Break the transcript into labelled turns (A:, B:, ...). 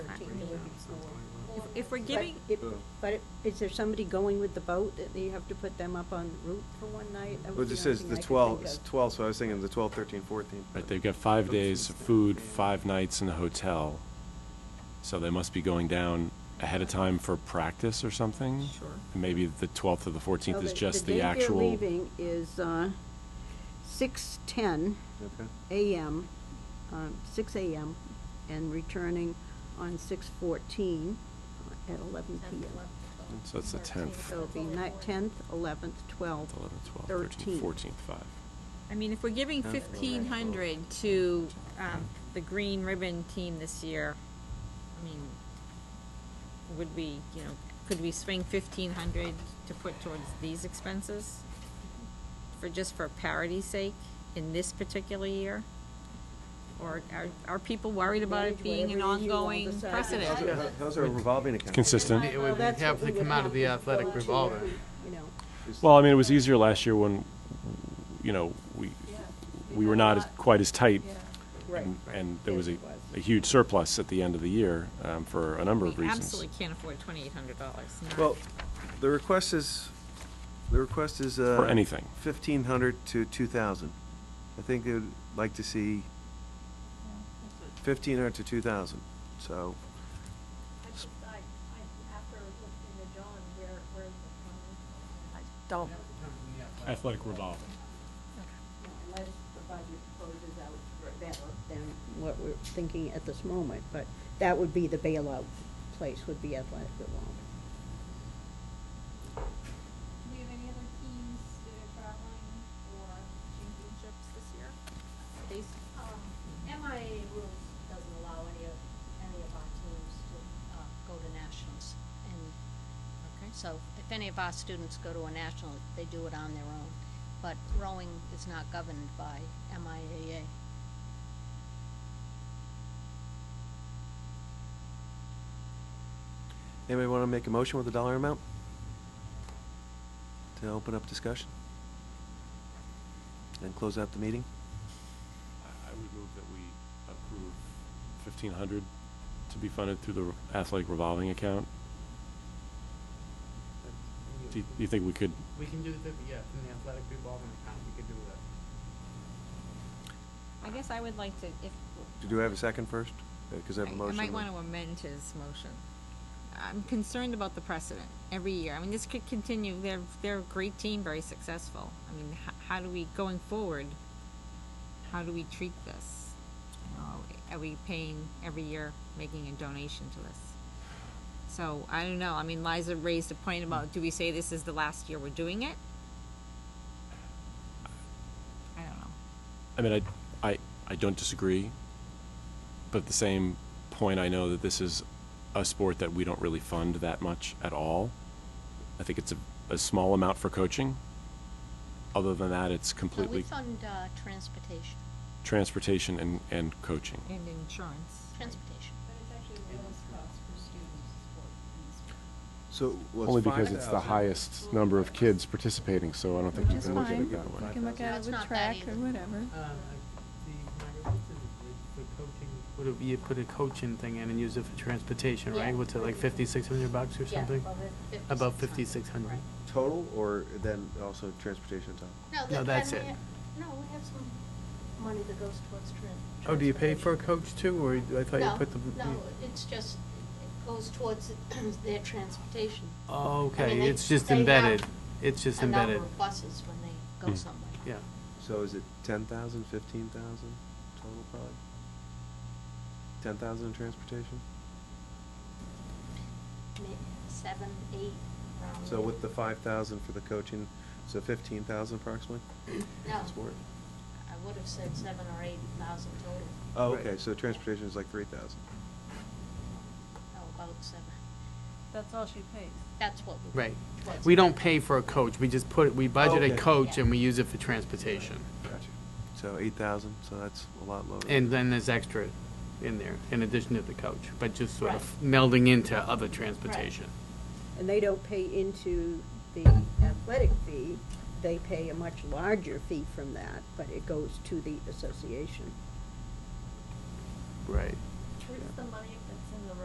A: if we're
B: But
A: giving,
B: it-
C: Yeah.
B: But it- is there somebody going with the boat that you have to put them up on route for one night? That was
C: Well, it
B: the
C: just
B: only
C: says
B: thing
C: the
B: I could
C: twelve,
B: think
C: it's
B: of.
C: twelve, so I was thinking the twelve, thirteen, fourteen.
D: Right, they've got five days of food, five nights in a hotel, so they must be going down ahead of time for practice or something?
A: Sure.
D: And maybe the 12th or the
B: So
D: 14th is just the
B: The
D: actual...
B: date they're leaving is uh, 6:10
C: Okay.
B: a.m., um, 6 a.m., and returning on 6:14 at 11 p.m.
D: So it's the 10th.
B: So it'll be ni- 10th, 11th, 12th,
D: 11th, 12th,
B: 13th.
D: 13th, 14th, 5.
A: I mean, if we're giving
C: Huh?
A: fifteen hundred to, um, the Green Ribbon Team this year, I mean, would we, you know, could we swing fifteen hundred to put towards these expenses? For, just for parity's sake, in this particular year? Or are, are people worried about it
B: Manage
A: being an
B: whatever it is you all
A: ongoing
B: decide.
A: precedent?
C: How's our- How's our revolving account?
D: Consistent.
E: It would
B: That's
E: have
B: what
E: to
B: we would
E: come out of the
B: have to
E: athletic
B: go to
E: revolver.
B: every, You know,
D: Well, I mean, it was easier last year when, you know, we, we were not as- quite as tight,
B: right.
D: and- and there was a,
B: Yes, it was.
D: a huge surplus at the end of the year um, for a number of
A: We
D: reasons.
A: absolutely can't afford twenty-eight hundred dollars,
D: e-
C: Well, the request is, the request is, uh.
D: For anything.
C: Fifteen hundred to two thousand. I think they would like to see fifteen hundred to two thousand, so.
F: I just, I, I, after listening to John, where, where is it coming from? I
G: Don't,
D: Athletic revolving.
B: Unless the budget closes out better than what we're thinking at this moment, but that would be the bailout place, would be athletic revolving.
F: Do we have any other teams that are traveling for championships this year? Um, MIA rules doesn't allow any of, any of our teams to, uh, go to nationals. And so if any of our students go to a national, they do it on their own. But rowing is not governed by MIAA.
C: Anybody want to make a motion with a dollar amount? To open up discussion? And close out the meeting?
D: I would move that we approve fifteen hundred to be funded through the athletic revolving account. Do you, do you think we could,
E: We can do the, yeah, from the athletic revolving account, we could do that.
A: I guess I would like to, if,
C: Do I have a second first? Because I have a
A: I- I
C: motion.
A: might want to amend his motion. I'm concerned about the precedent every year. I mean, this could continue. They're, they're a great team, very successful. I mean, h- how do we, going forward, how do we treat this? Uh, Are we paying every year, making a donation to this? So, I don't know. I mean, Liza raised a point about, do we say this is the last year we're doing it? I don't know.
D: I mean, I, I, I don't disagree, but at the same point, I know that this is a sport that we don't really fund that much at all. I think it's a, a small amount for coaching. Other than that, it's
F: Uh, We
D: completely
F: fund, uh, transportation,
D: transportation and, and coaching.
A: And insurance.
F: transportation.
C: So,
H: Only because it's the highest number of kids participating, so I don't think you
G: That's
H: can look at
G: fine.
H: it that
G: you
H: way.
G: can look
F: No,
G: at
F: it's
G: it with
F: not that
G: track
F: either.
G: or whatever.
E: Uh, the, Margaret, what's the, the coaching, would it, you put a coaching thing in and use it for transportation, right?
F: Yeah.
E: What's it, like fifty-six hundred bucks or something? About fifty-six hundred.
C: Total, or then also transportation time?
F: No,
E: No,
F: that-
E: that's
F: then we
E: it.
F: ha- No, we have some money that goes towards tran- transportation.
E: Oh, do you pay for a coach too, or I thought you
F: No,
E: put the?
F: No, it's just, it goes towards their transportation.
E: Oh,
F: I mean,
E: okay,
F: they-
E: it's just
F: they have
E: embedded, it's just
F: A number
E: embedded,
F: of buses when they go somewhere.
E: yeah.
C: So is it ten thousand, fifteen thousand total probably? Ten thousand in transportation?
F: Ma- Seven, eight, around.
C: So
F: there.
C: with the five thousand for the coaching, so fifteen thousand approximately?
F: No,
C: Sport?
F: I would have said seven or eight thousand total.
C: Oh,
E: Right.
C: okay, so transportation is like three thousand.
F: No, Oh, about seven.
G: That's all she pays.
F: That's what we.
E: Right.
F: what's-
E: We don't pay for a coach, we just put, we budget a
C: Okay.
E: coach and we use it for transportation.
C: Gotcha. So eight thousand, so that's a lot lower.
E: And then there's extra in there, in addition to the coach, but just sort of
F: Right.
E: melding into other transportation.
B: And they don't pay into the athletic fee, they pay a much larger fee from that, but it goes to the association.
E: Right.
F: Where's the money